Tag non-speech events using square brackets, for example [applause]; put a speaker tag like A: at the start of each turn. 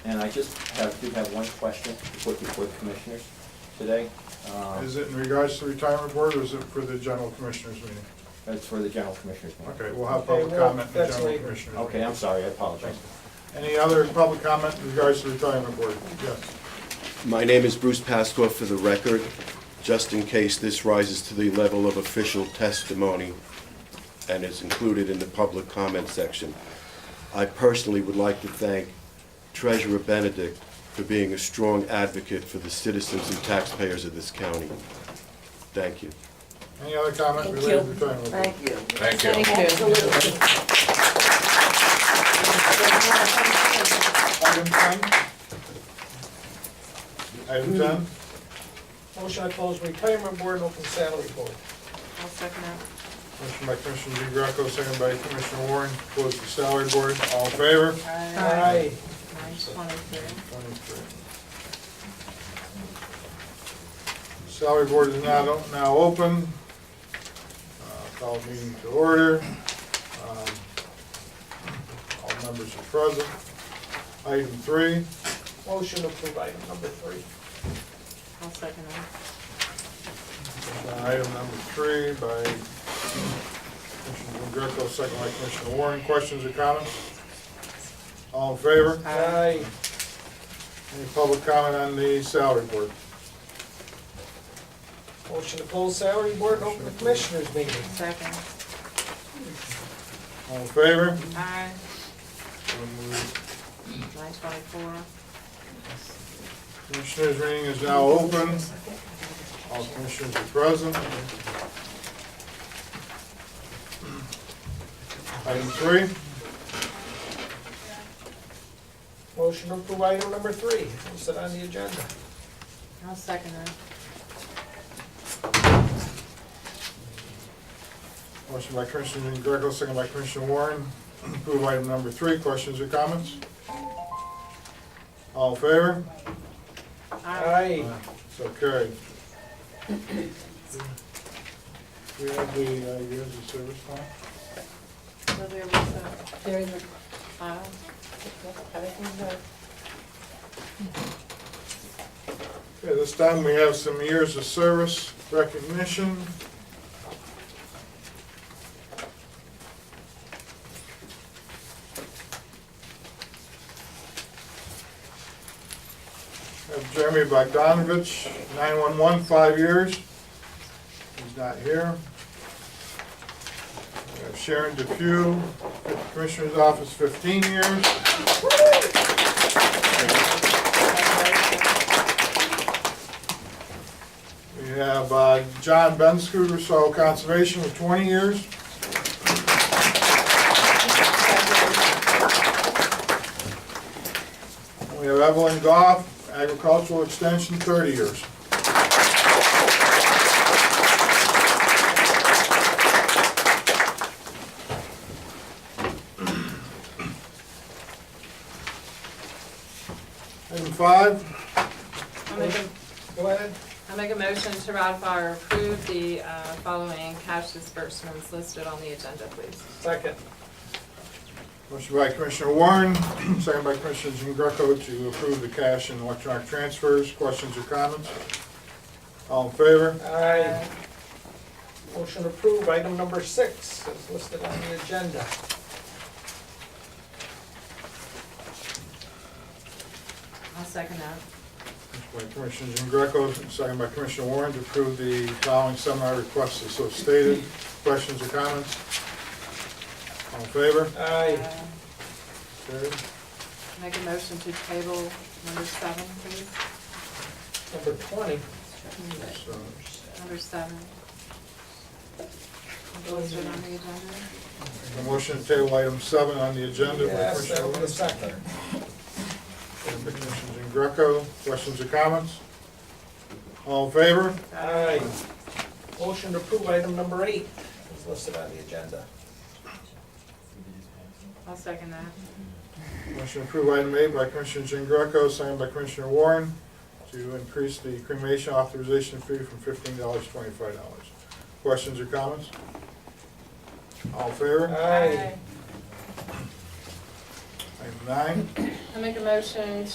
A: just have, do have one question to put before the commissioners today. Um,
B: Is it in regards to the retirement board or is it for the general commissioners meeting?
A: That's for the general commissioners. meeting.
B: Okay, we'll have public
C: Okay, well,
B: comment in the
C: that's
B: general
C: later.
B: commissioners.
A: Okay, I'm sorry, I apologize.
B: meeting. Any other public comment in regards to the retirement board? Yes.
D: My name is Bruce Pasqua for the record, just in case this rises to the level of official testimony and is included in the public comment section. I personally would like to thank Treasurer Benedict for being a strong advocate for the citizens and taxpayers of this county. Thank you.
B: Any other comment
E: Thank
B: related to
E: you.
B: the retirement board?
F: Thank you.
G: Thank you.
E: Absolutely.
B: Item ten? Item ten?
C: Motion to close retirement board and open salary board.
F: I'll second that.
B: Motion by Commissioner DeGreco, second by Commissioner Warren, close the salary board, all in favor?
F: Aye. Twenty-three.
B: Salary board is now, now open. Uh, Call meeting to order. Um, All members are present. Item three,
C: Motion to approve item number three.
F: I'll second that.
B: uh, item number three by Commissioner Greco, second by Commissioner Warren. Questions or comments? All in favor?
C: Aye.
B: Any public comment on the salary board?
C: Motion to close salary board and open the commissioners meeting.
F: Second.
B: All in favor?
F: Aye.
B: So moved.
F: Nine twenty-four.
B: Commissioners' meeting is now open. All commissioners are present. Item three,
C: Motion to approve item number three, listed on the agenda.
F: I'll second that.
B: motion by Commissioner Greco, second by Commissioner Warren. [clears throat] Approve item number three. Questions or comments? All in favor?
C: Aye.
B: So carried. We have the, uh, years of service time?
F: So there was a
E: There is a,
F: file.
E: everything's there.
B: Okay, this time we have some years of service recognition. Have Jeremy Bogdanovich, 911, five years. He's not here. We have Sharon DePew, Commissioner's Office, 15 years. We have uh, John Benscooter, Soil Conservation, with 20 years. We have Evelyn Goff, Agricultural Extension, 30 years. Item five,
E: I'll make a,
C: Go ahead.
E: I'll make a motion to ratify or approve the uh, following cash disbursements listed on the agenda, please.
C: Second.
B: motion by Commissioner Warren, [clears throat] second by Commissioner Jean Greco to approve the cash and electronic transfers. Questions or comments? All in favor?
C: Aye. Motion to approve item number six, is listed on the agenda.
E: I'll second that.
B: By Commissioner Jean Greco, second by Commissioner Warren to approve the following seminar requests as so stated. Questions or comments? All in favor?
C: Aye.
E: Uh,
B: Carried.
E: Make a motion to table number seven, please.
C: Number twenty.
B: So,
E: Number seven. Listed on the agenda.
B: a motion to table item seven on the agenda by
C: Yes,
B: Commissioner
C: that was the
B: Warren.
C: second.
B: Second by Commissioner Jean Greco. Questions or comments? All in favor?
C: Aye. Motion to approve item number eight, is listed on the agenda.
E: I'll second that.
B: Motion to approve item eight by Commissioner Jean Greco, second by Commissioner Warren to increase the cremation authorization fee from fifteen dollars to twenty-five dollars. Questions or comments? All in favor?
C: Aye.
B: Item nine.
E: I make a motion